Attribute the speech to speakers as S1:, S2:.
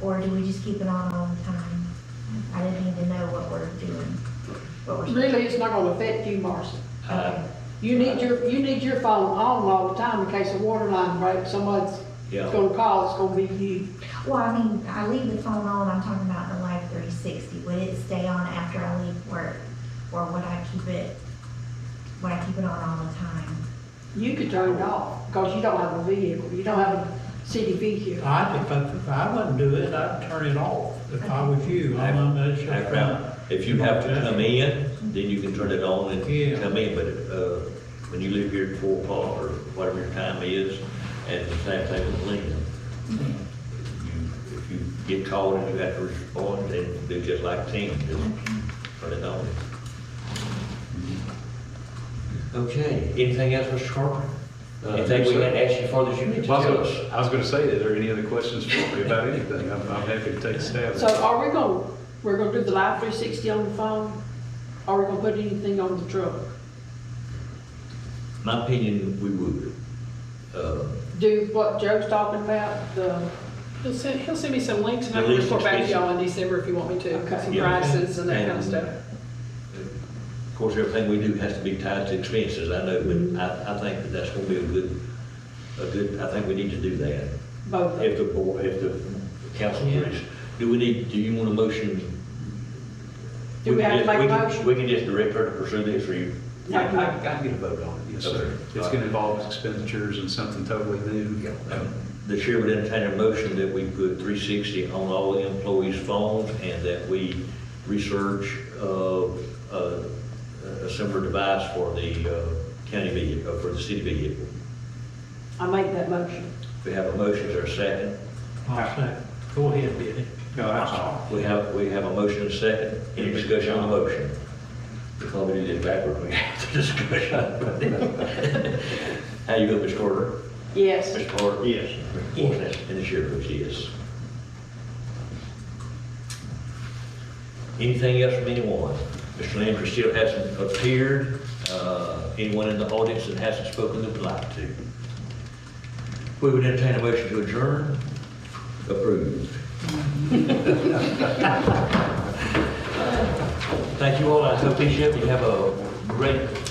S1: Or do we just keep it on all the time? I didn't need to know what we're doing, what we're.
S2: Really, it's not gonna affect you, Marcy.
S3: Uh,
S2: You need your, you need your phone on all the time in case the water line breaks, someone's
S3: Yeah.
S2: gonna call, it's gonna be you.
S1: Well, I mean, I leave the phone on, I'm talking about the Life three sixty, would it stay on after I leave work? Or would I keep it, would I keep it on all the time?
S2: You could turn it off, because you don't have a vehicle, you don't have a city vehicle.
S4: I, if I, if I wouldn't do it, I'd turn it off if I was you. I wouldn't let it shut down.
S3: If you have to come in, then you can turn it on
S4: Yeah.
S3: and come in, but, uh, when you leave here at four o'clock or whatever your time is, and the same thing with Lynn. You- If you get called and you have to respond, then do just like Tim, just turn it on. Okay, anything else, Mr. Carter?
S5: Uh,
S3: Anything we can ask you for that you need to
S5: Well, I
S3: tell
S5: was
S3: us?
S5: gonna- I was going to say, is there any other questions for me about anything? I'm, I'm happy to take a stab.
S2: So are we gonna, we're gonna do the live three sixty on the phone? Are we gonna put anything on the truck?
S3: My opinion, we would. Uh,
S2: Do what Joe's talking about, the,
S6: He'll send, he'll send me some links and I can
S3: Release
S6: report back to
S3: expenses.
S6: y'all in December if you want me to,
S2: Okay.
S6: some
S3: Yeah.
S6: prices and that kind of stuff.
S3: Of course, everything we do has to be tied to expenses, I know, but I, I think that that's gonna be a good, a good, I think we need to do that.
S2: both of them.
S3: If the board, if the council
S4: Yeah.
S3: agrees. Do we need, do you want a motion?
S2: Do we have to
S3: can just-
S2: make a
S3: can-
S2: motion?
S3: We can just direct her to pursue this, or you?
S2: I- I-
S3: can get a vote on it,
S5: Yes, sir. It's going to involve expenditures and something totally new.
S3: Um, The chair would entertain a motion that we put three sixty on all the employees' phones and that we research, uh, uh, a similar device for the, uh, county vehicle, for the city vehicle.
S2: I make that motion.
S3: We have a motion, is there a second?
S4: I'll say, go ahead, Billy.
S5: No, I'm sorry.
S3: We have, we have a motion and a second. Any discussion on the motion? We probably did it backward, we have the discussion. How you vote, Ms. Carter?
S2: Yes.
S3: Ms. Carter? Yes. Yes. And the chair votes yes. Anything else from anyone? Mr. Lambert still hasn't appeared. Uh, Anyone in the audience that hasn't spoken that would like to? We would entertain a motion to adjourn. Approved. Thank you all. I hope each of you have a great